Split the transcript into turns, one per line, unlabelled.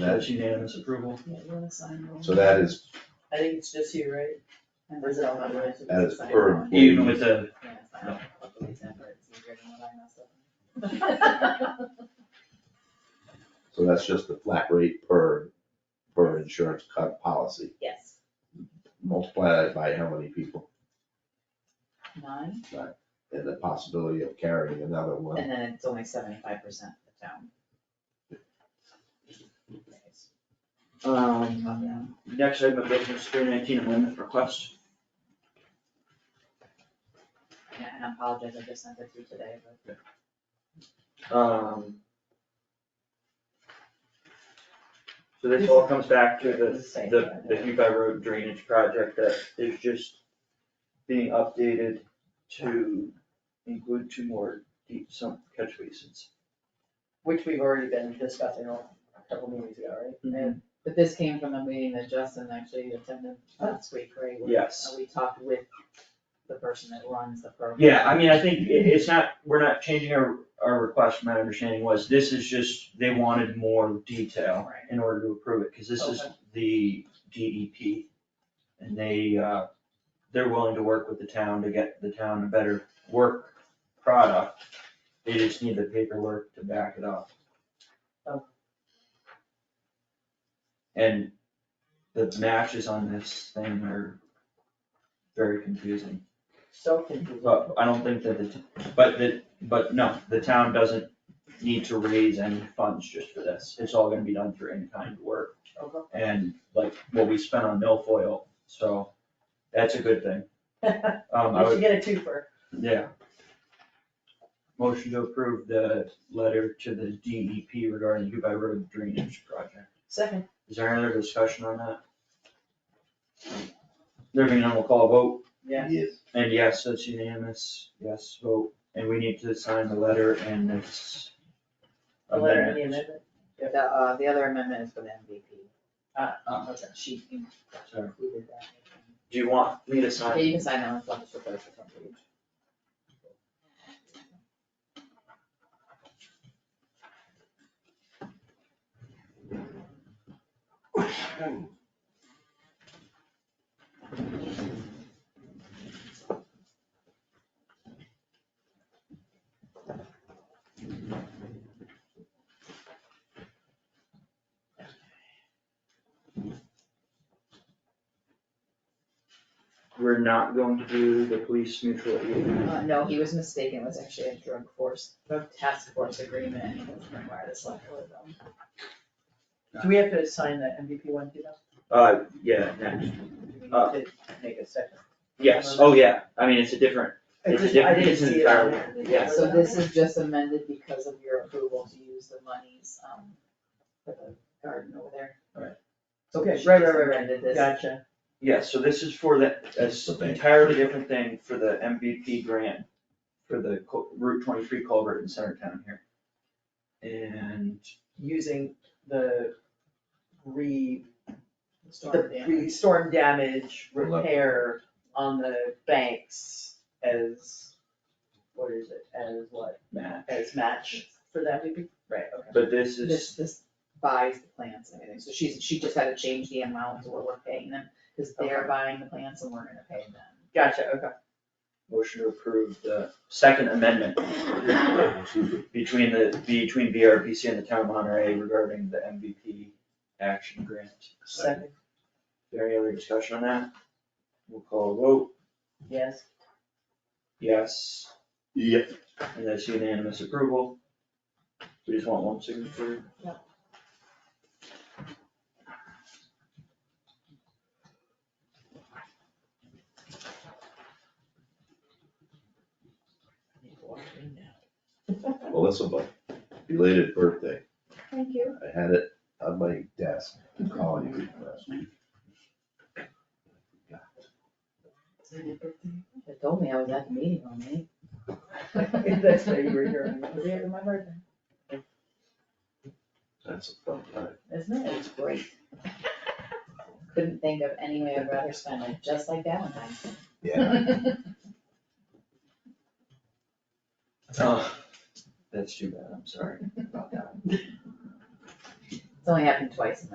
that,
That's unanimous approval.
Yeah, you wanna sign one?
so that is,
I think it's just you, right? Or is it all that way?
that is per employee,
Even with the,
Yeah, it's not all separate, it's easier than what I messed up.
so that's just the flat rate per, per insurance cut policy.
Yes,
Multiply that by how many people
nine,
and the possibility of carrying another one.
and then it's only seventy-five percent of the town.
um, next item of business, three nineteen amendment request.
Yeah, and I apologize, I just sent it through today, but.
Um. So this all comes back to the
It's safe.
the, the Hubei Road drainage project that is just being updated to include two more deep sump catch basins.
Which we've already been discussing a couple meetings ago, right?
Mm-hmm.
But this came from a meeting that Justin actually attended last week, right? where
Yes.
We talked with the person that runs the program.
Yeah, I mean, I think i it's not, we're not changing our, our request, my understanding was, this is just, they wanted more detail
Right.
in order to approve it, cause this is the DEP. And they, uh, they're willing to work with the town to get the town a better work product, they just need the paperwork to back it up.
Oh.
And the matches on this thing are very confusing.
So confusing.
But I don't think that the, t- but the, but no, the town doesn't need to raise any funds just for this, it's all gonna be done through in-kind work.
Okay.
And like what we spent on milfoil, so that's a good thing. Um, I
You should
would,
get a twofer.
yeah. Motion to approve the letter to the DEP regarding Dubai Road drainage project.
Second.
Is there any other discussion on that? There being none, we'll call a vote.
Yeah.
Yes.
And yes, that's unanimous, yes vote, and we need to sign the letter and this
The letter and the
amendment.
amendment.
The, uh, the other amendment is for the MVP.
Ah,
ah,
Uh, um, okay. She
Sorry.
included that.
Do you want me to
Yeah,
sign?
you can sign that one, as long as it's the first one, please.
We're not going to do the police mutual aid.
Uh, no, he was mistaken, it was actually a drug force, drug task force agreement, and it doesn't require the select board though.
Do we have to sign the MVP one too though?
Uh, yeah, next.
Do we
Uh.
need to make a second?
yes, oh yeah, I mean, it's a different,
I
It's a
just-
different-
I didn't
it's an
see it on
entire-
there.
yeah.
So this is just amended because of your approval to use the monies, um, for the garden over there.
Okay,
She
right,
just
right, right,
amended
right,
this.
gotcha.
yeah, so this is for the, it's
The
an
bank.
entirely different thing for the MVP grant for the cul- Route twenty-three culvert in Centertown here. And
Using the re,
Storm
the
damage.
re, storm damage
Love.
repair on the banks as, what is it, as what,
Matt,
as match for that MVP? Right, okay.
but this is.
This, this buys the plants and everything, so she's, she just had to change the amount to what we're paying them, cause they're
Okay.
buying the plants and we're gonna pay them.
Gotcha, okay.
Motion to approve the second amendment between the, between VRPC and the town of Monterey regarding the MVP action grant.
Second,
Is there any other discussion on that? We'll call a vote,
yes.
yes,
Yep.
and that's unanimous approval. We just want one signature.
Melissa, but belated birthday.
Thank you.
I had it on my desk, calling you last week.
They told me I was at the meeting on me.
That's why you were here.
Yeah, it was my birthday.
That's a fun time.
Isn't it? It's great. Couldn't think of any way I'd rather spend it, just like Valentine's.
Yeah,
Oh, that's too bad, I'm sorry about that.
It's only happened twice in my